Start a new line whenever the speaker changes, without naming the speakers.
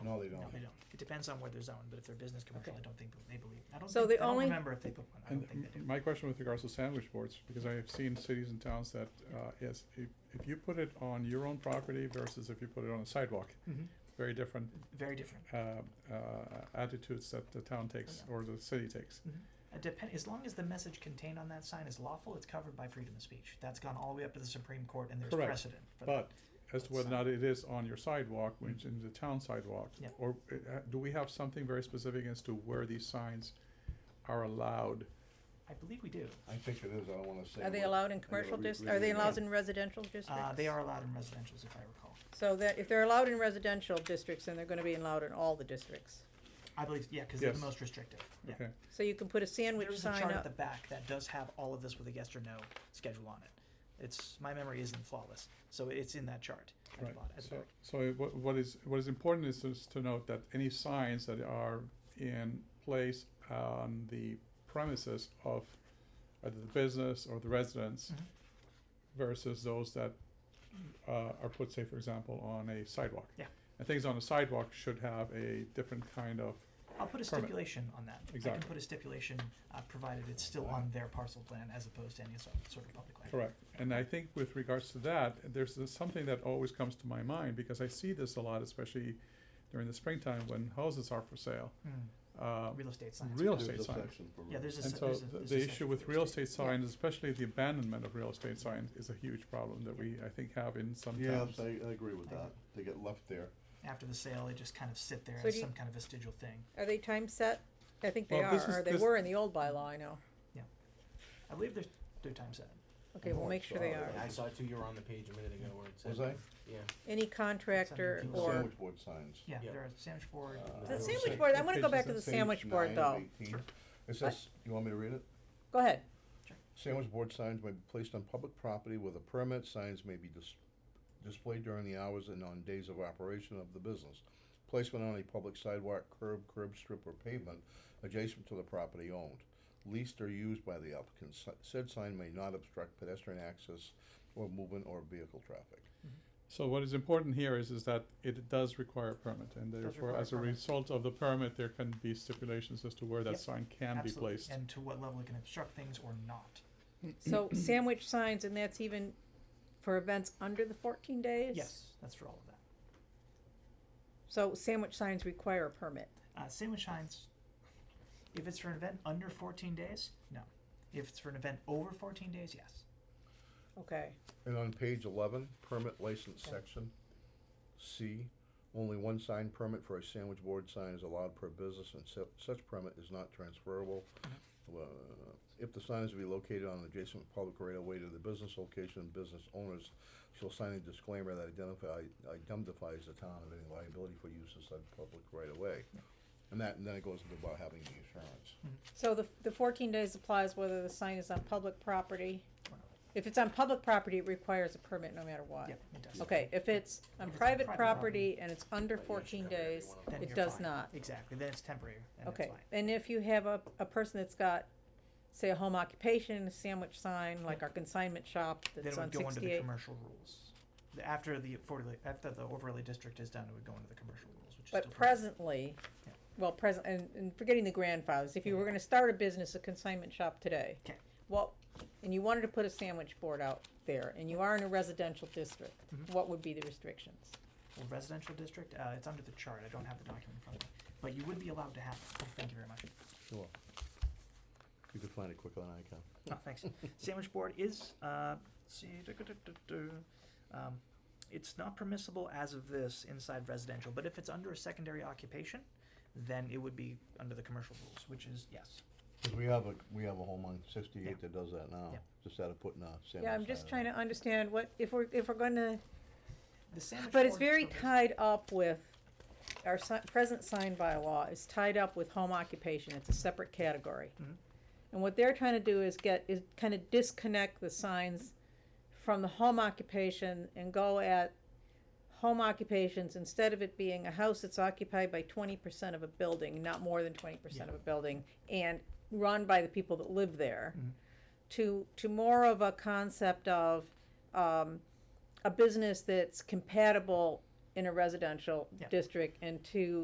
Oh, No, they don't.
No, they don't. It depends on where they're zoned, but if they're business commercial,
Okay.
I don't think they believe, I don't
So
think,
the
I don't
only-
remember if they put one, I
And
don't think they do.
my question with regards to sandwich boards, because I have seen cities and towns that, uh, yes, if, if you put it on your own property versus if you put it on a sidewalk,
Mhm.
very different,
Very different.
uh, uh, attitudes that the town takes or the city takes.
Mm-hmm.
Uh, Depend, as long as the message contained on that sign is lawful, it's covered by freedom of speech. That's gone all the way up to the Supreme Court and there's
Correct.
precedent for that.
But as to whether or not it is on your sidewalk, which is the town sidewalk,
Mm. Yeah.
or uh, do we have something very specific as to where these signs are allowed?
I believe we do.
I think it is, I don't wanna say.
Are they
what-
allowed
I
in
gotta
commercial
re-
dis,
read
are
it
they
again.
allowed in residential districts?
Uh, they are allowed in residentials, if I recall.
So that, if they're allowed in residential districts, then they're gonna be allowed in all the districts.
I believe, yeah, because they're the
Yes.
most restrictive. Yeah.
Okay,
So you can put a sandwich
There's a
sign
chart at the
up,
back that does have all of this with a yes or no schedule on it. It's, my memory isn't flawless, so it's in that chart at the
right,
bottom, at the
so,
back.
so it- what, what is, what is important is just to note that any signs that are in place on the premises of either the business or the residence
Mhm.
versus those that, uh, are put, say, for example, on a sidewalk.
Yeah.
And things on a sidewalk should have a different kind of
I'll put a
Permit.
stipulation on that. I can
Exactly.
put a stipulation, uh, provided it's still on their parcel plan as opposed to any so- sort of public land.
Correct, and I think with regards to that, there's this- something that always comes to my mind, because I see this a lot, especially during the springtime when houses are for sale.
Mm.
Hmm,
Uh,
Real estate signs.
real
There's
estate
a
sign.
section for
Yeah, there's a,
And
se-
so
there's a.
the-
there's a
the
section
issue
for
with real estate
Yeah.
signs, especially the abandonment of real estate signs, is a huge problem that we, I think, have in some towns.
Yes, I, I agree with that, they get left there.
After the sale, they just kind of sit there
So
as
do you-
some kind of vestigial thing.
are they time set? I think they
Well,
are,
this is-
or they
this-
were in the old bylaw, I know.
I believe there's their time set.
Okay, we'll
Oh,
make sure they
sorry.
are.
Yeah.
I saw two, you were on the page a minute ago where it said.
Was I?
Yeah.
Any contractor
Something to
or,
Sandwich board signs.
Yeah,
Yeah.
there are sandwich board.
Uh,
the
Six-
sandwich board, I wanna go
pages
back to
and
the
Page
sandwich board
nine of
though.
18. It says, you want me to read it?
Go ahead.
Sandwich board signs may be placed on public property with a permit, signs may be dis- displayed during the hours and on days of operation of the business. Placement on a public sidewalk, curb, curb strip, or pavement adjacent to the property owned, leased or used by the applicant, Si- said sign may not obstruct pedestrian access or movement or vehicle traffic.
So what is important here is, is that it does require a permit, and
Does
therefore,
require a
as a
permit.
result of the permit, there can be stipulations as to where
Yep,
that sign can be
Absolutely.
placed.
And to what level it can obstruct things or not.
So sandwich signs, and that's even for events under the fourteen days?
Yes, that's for all of that.
So sandwich signs require a permit.
Uh, sandwich signs, if it's for an event under fourteen days, no. If it's for an event over fourteen days, yes.
Okay,
And on page eleven, permit license
Yeah.
section, C, only one sign permit for a sandwich board sign is allowed per business and su- such permit is not transferable. Uh, If the sign is to be located on adjacent public right of way to the business location, business owners shall sign a disclaimer that identify, identifies the town of any liability for use of such public right of way. And that, and then it goes into about having the insurance.
so the, the fourteen days applies whether the sign is on public property. If it's on public property, it requires a permit no matter what.
Yep, it does.
Okay, if it's
If
on
it's on
private
private
property and it's under
But yes,
fourteen
cover every
days,
one of
Then
it
you're
does
fine.
not.
Exactly, then it's temporary, and it's
Okay,
fine.
and if you have a, a person that's got, say, a home occupation, a sandwich sign, like our consignment shop
Then it
that's on
would go into the
sixty-eight.
commercial rules. The- After the overlay, after the overlay district is done, it would go into the commercial rules, which is
But
still permitted.
presently,
Yeah.
well, present, and, and forgetting the grandfathers, if you were
Mhm.
gonna start a business, a consignment shop today.
Okay.
What, and you wanted to put a sandwich board out there, and you are in a residential district,
Mhm.
what would be the restrictions?
Well, residential district, uh, it's under the chart, I don't have the document in front of me, but you would be allowed to have it, Oh, thank you very much.
Sure. You could find it quicker than I can.
Oh, thanks. Sandwich board is, uh, see, duh, duh, duh, duh, duh. um, it's not permissible as of this inside residential, but if it's under a secondary occupation, then it would be under the commercial rules, which is yes.
Cause we have a, we have a home on
Yeah.
sixty-eight that does that now,
Yeah.
just out of putting a sandwich.
Yeah, I'm just trying to understand what, if we're, if we're gonna,
The sandwich
but it's
board
very
permits-
tied up with, our si- present sign bylaw is tied up with home occupation, it's a separate category.
Mhm.
And what they're trying to do is get, is kind of disconnect the signs from the home occupation and go at home occupations, instead of it being a house that's occupied by twenty percent of a building, not more than twenty percent of a building, and run by the people that live there,
Mhm.
to, to more of a concept of, um, a business that's compatible in a residential
Yeah.
district and to